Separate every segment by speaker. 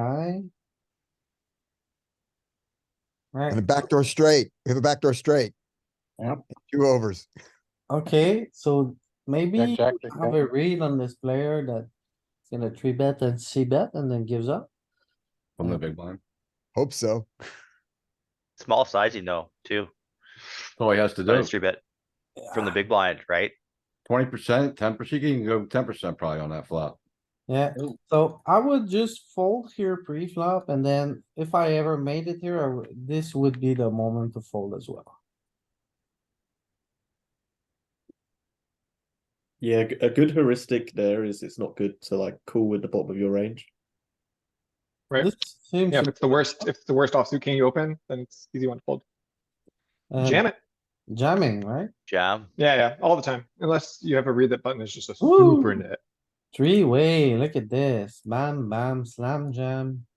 Speaker 1: eye.
Speaker 2: And a
Speaker 1: Right,
Speaker 2: backdoor straight. We have a backdoor straight.
Speaker 1: Yep.
Speaker 2: Two overs.
Speaker 1: okay, so maybe
Speaker 3: Jack,
Speaker 1: you
Speaker 3: jack, jack,
Speaker 1: have a read on this player that is gonna three bet and C bet and then gives up.
Speaker 4: From the big blind.
Speaker 2: Hope so.
Speaker 5: Small sizing though, too.
Speaker 4: That's all he has to
Speaker 5: But
Speaker 4: do.
Speaker 5: it's three bet from the
Speaker 1: Yeah,
Speaker 5: big blind, right?
Speaker 4: Twenty percent, ten percent, you can go ten percent probably on that flop.
Speaker 1: Yeah, so I would just fold here pre-flop and then if I ever made it here, I would- this would be the moment to fold as well.
Speaker 6: Yeah, g- a good heuristic there is it's not good to like call with the bottom of your range.
Speaker 3: Right.
Speaker 1: This seems.
Speaker 3: Yeah, if it's the worst, if it's the worst offsuit king you open, then it's easy one to fold.
Speaker 1: uh,
Speaker 3: Jam it.
Speaker 1: Jamming, right?
Speaker 5: Jam.
Speaker 3: Yeah, yeah, all the time. Unless you have a read that button is just a
Speaker 1: Woo.
Speaker 3: super nit.
Speaker 1: Three way, look at this. Bam, bam, slam jam.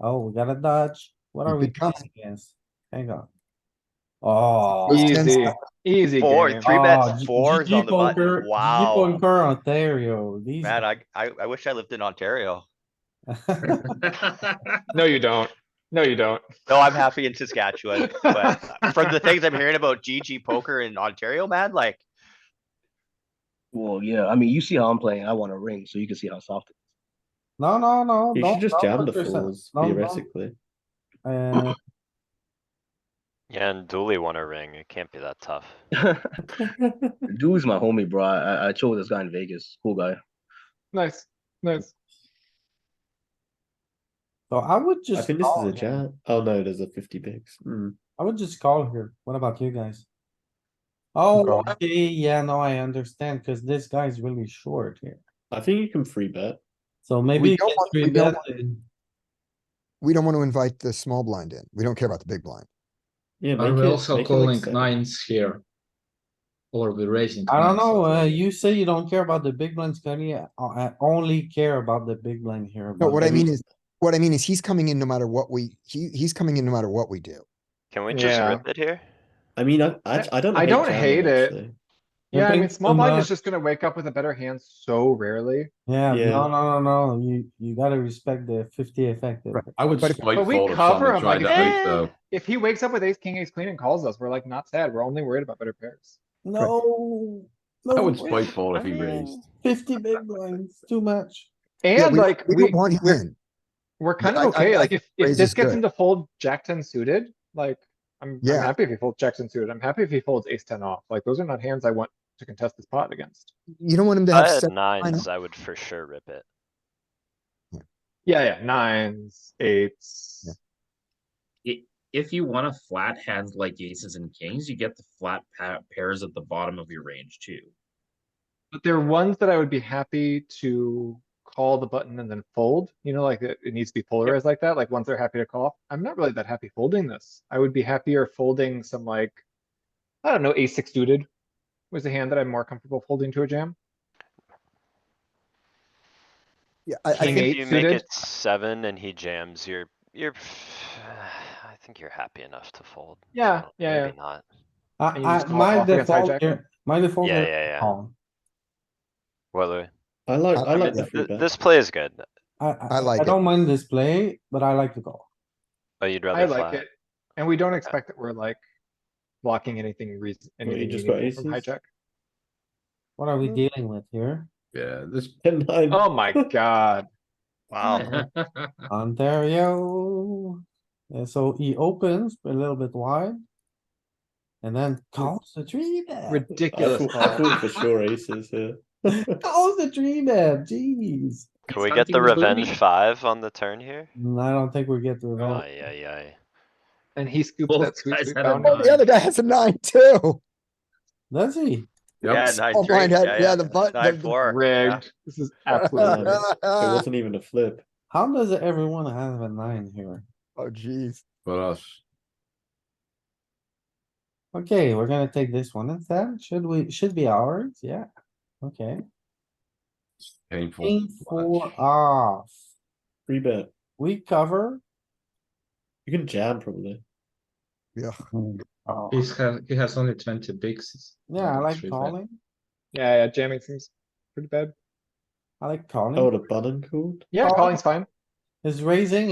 Speaker 1: Oh, we got to dodge. What
Speaker 2: Keep
Speaker 1: are we
Speaker 2: it coming.
Speaker 1: playing against? Hang on. Oh.
Speaker 2: Those 10
Speaker 3: Easy,
Speaker 2: step-
Speaker 3: easy
Speaker 5: Four,
Speaker 3: game.
Speaker 5: three
Speaker 1: Oh,
Speaker 5: bets,
Speaker 1: G-
Speaker 5: fours
Speaker 1: GG
Speaker 5: on the button.
Speaker 1: poker- GG
Speaker 5: Wow.
Speaker 1: Poker Ontario, these.
Speaker 5: Man, I, I, I wish I lived in Ontario.
Speaker 3: No, you don't. No, you don't.
Speaker 5: No, I'm happy in Saskatchewan, but uh, from the things I'm hearing about GG poker in Ontario, man, like,
Speaker 7: Well, yeah, I mean, you see how I'm playing. I want a ring, so you can see how soft it
Speaker 1: No, no, no.
Speaker 6: You
Speaker 1: don't-
Speaker 6: should
Speaker 1: don't
Speaker 6: just jam the
Speaker 1: hurt yourself.
Speaker 6: fours
Speaker 1: Don't- don't-
Speaker 6: theoretically.
Speaker 1: Uh,
Speaker 8: Yeah, and Dooley won a ring. It can't be that tough.
Speaker 7: is. Dude's my homie, bro. I, I- I chill with this guy in Vegas. Cool guy.
Speaker 3: Nice, nice.
Speaker 1: So I would
Speaker 6: I
Speaker 1: just.
Speaker 6: think this is
Speaker 1: call
Speaker 6: a
Speaker 1: here.
Speaker 6: jam. Oh no, there's a fifty bigs. Mm.
Speaker 1: I would just call here. What about you guys? Oh,
Speaker 3: calling.
Speaker 1: okay, yeah, no, I understand, cuz this guy's really short here.
Speaker 6: I think you can free bet.
Speaker 1: So maybe. you
Speaker 2: don't
Speaker 1: can
Speaker 2: want- we
Speaker 1: three
Speaker 2: don't
Speaker 1: bet and-
Speaker 2: We don't want to invite the small blind in. We don't care about the big blind.
Speaker 6: Yeah,
Speaker 9: Are
Speaker 6: make
Speaker 9: we
Speaker 6: it-
Speaker 9: also
Speaker 6: make it like
Speaker 9: calling
Speaker 6: seven.
Speaker 9: nines here? Or we raising?
Speaker 1: I don't
Speaker 9: nines
Speaker 1: know,
Speaker 9: or-
Speaker 1: uh, you say you don't care about the big blind, Scotty. I, I only care about the big blind here.
Speaker 2: No,
Speaker 1: but
Speaker 2: what I
Speaker 1: maybe-
Speaker 2: mean is, what I mean is he's coming in no matter what we, he, he's coming in no matter what we do.
Speaker 8: Can we just
Speaker 3: Yeah.
Speaker 8: rip it here?
Speaker 6: I mean, I I, I don't.
Speaker 3: I don't
Speaker 6: jamming,
Speaker 3: hate it.
Speaker 6: actually.
Speaker 3: Yeah, I
Speaker 1: Nothing
Speaker 3: mean, small
Speaker 1: so
Speaker 3: blind
Speaker 1: much.
Speaker 3: is just gonna wake up with a better hand so rarely.
Speaker 1: Yeah,
Speaker 6: Yeah.
Speaker 1: no, no, no, no, you, you gotta respect the fifty effective.
Speaker 4: I would
Speaker 2: But if-
Speaker 4: slight
Speaker 3: But we
Speaker 4: fold if
Speaker 3: cover
Speaker 4: someone
Speaker 3: him,
Speaker 4: tried
Speaker 3: like,
Speaker 4: to ace
Speaker 3: eh.
Speaker 4: though.
Speaker 3: If he wakes up with ace, king, ace, queen and calls us, we're like not sad. We're only worried about better pairs.
Speaker 1: No.
Speaker 4: I
Speaker 1: no
Speaker 4: would
Speaker 1: way.
Speaker 4: slight fold if he raised.
Speaker 1: Fifty big blinds, too much.
Speaker 2: Yeah,
Speaker 3: And
Speaker 2: we-
Speaker 3: like,
Speaker 2: We
Speaker 3: we,
Speaker 2: don't want him in.
Speaker 3: we're kind
Speaker 2: I- I-
Speaker 3: of okay.
Speaker 2: I
Speaker 3: Like if,
Speaker 2: raise
Speaker 3: if
Speaker 2: is
Speaker 3: this gets
Speaker 2: good.
Speaker 3: him to fold jack ten suited, like I'm, I'm
Speaker 2: Yeah.
Speaker 3: happy if he folds jack ten suited. I'm happy if he folds ace ten off. Like those are not hands I want to contest this pot against.
Speaker 2: You don't want him to
Speaker 8: If I
Speaker 2: have,
Speaker 8: had
Speaker 2: seven-
Speaker 8: nines, I would for sure rip it.
Speaker 3: Yeah, yeah, nines, eights.
Speaker 2: Yeah.
Speaker 10: i- if you want a flat hand like aces and kings, you get the flat pa- pairs at the bottom of your range too.
Speaker 3: But they're ones that I would be happy to call the button and then fold, you know, like it, it needs to be polarized like that, like ones they're happy to call. I'm not really that happy folding this. I would be happier folding some like, I don't know, ace six suited was the hand that I'm more comfortable folding to a jam.
Speaker 2: yeah, I, I
Speaker 3: King
Speaker 8: King,
Speaker 2: think,
Speaker 3: eight
Speaker 8: if you make
Speaker 3: suited?
Speaker 8: it seven and he jams, you're, you're, I think you're happy enough to fold. I
Speaker 3: Yeah,
Speaker 8: don't-
Speaker 3: yeah, yeah.
Speaker 8: Maybe not.
Speaker 1: I,
Speaker 3: And you just
Speaker 1: I,
Speaker 3: call
Speaker 1: my
Speaker 3: off against
Speaker 1: default
Speaker 3: hijack?
Speaker 1: here, my default.
Speaker 8: Yeah,
Speaker 1: here-
Speaker 8: yeah, yeah.
Speaker 1: Oh,
Speaker 8: What, Louis?
Speaker 6: I like I
Speaker 2: I
Speaker 6: like
Speaker 2: mean,
Speaker 6: the
Speaker 8: Th-
Speaker 6: free
Speaker 8: th-
Speaker 6: bet.
Speaker 8: This play is good,
Speaker 1: I,
Speaker 2: I
Speaker 1: I,
Speaker 2: like
Speaker 1: I
Speaker 2: it.
Speaker 1: don't mind this play, but I like to go.
Speaker 8: but Oh, you'd
Speaker 3: I
Speaker 8: rather
Speaker 3: like
Speaker 8: flat.
Speaker 3: it. And we don't expect that we're like blocking anything reason,
Speaker 6: you
Speaker 3: anything
Speaker 6: just got
Speaker 3: meaningful from
Speaker 6: aces?
Speaker 3: hijack.
Speaker 1: What are we
Speaker 3: Mm.
Speaker 1: dealing with here?
Speaker 4: Yeah, this,
Speaker 6: Ten nine.
Speaker 3: Oh my god.
Speaker 5: wow.
Speaker 1: Ontario. And so he opens a little bit wide. And then calls the three bet.
Speaker 6: I
Speaker 3: Ridiculous.
Speaker 6: thought, I
Speaker 3: call.
Speaker 6: thought for sure aces here.
Speaker 1: Calls the three bet, jeez.
Speaker 8: Can we get the revenge five on the turn here?
Speaker 1: Mm, I don't think we get the
Speaker 8: Oh,
Speaker 1: revenge.
Speaker 8: yeah, yeah.
Speaker 3: And he scoops
Speaker 10: Both
Speaker 3: that sweet,
Speaker 10: guys
Speaker 3: sweet
Speaker 10: had a
Speaker 3: bounty.
Speaker 2: oh, the other guy has a nine too.
Speaker 1: Does he?
Speaker 5: Yeah,
Speaker 4: yep,
Speaker 5: nine,
Speaker 2: Oh,
Speaker 5: three.
Speaker 2: blind had-
Speaker 5: Yeah,
Speaker 2: yeah,
Speaker 5: yeah.
Speaker 2: the button- the-
Speaker 5: Nine,
Speaker 2: the-
Speaker 5: four. yeah.
Speaker 3: Rigged. This is absolutely rigged.
Speaker 6: It wasn't even a flip.
Speaker 1: How does everyone have a nine here?
Speaker 2: Oh, geez.
Speaker 4: but us.
Speaker 1: Okay, we're gonna take this one instead. Should we, should be ours? Yeah. Okay.
Speaker 4: Painful.
Speaker 1: King four
Speaker 4: watch.
Speaker 1: off.
Speaker 6: Free bet.
Speaker 1: We cover.
Speaker 6: You can jam probably.
Speaker 2: Yeah.
Speaker 1: Oh,
Speaker 9: He's has, he has only twenty bigs. It's
Speaker 1: Yeah, I
Speaker 9: not
Speaker 1: like
Speaker 9: three bet.
Speaker 1: calling.
Speaker 3: Yeah, yeah, jamming seems pretty bad.
Speaker 1: I like calling.
Speaker 6: Oh, the button called.
Speaker 3: Yeah,
Speaker 1: Call.
Speaker 3: calling's fine.
Speaker 1: Is raising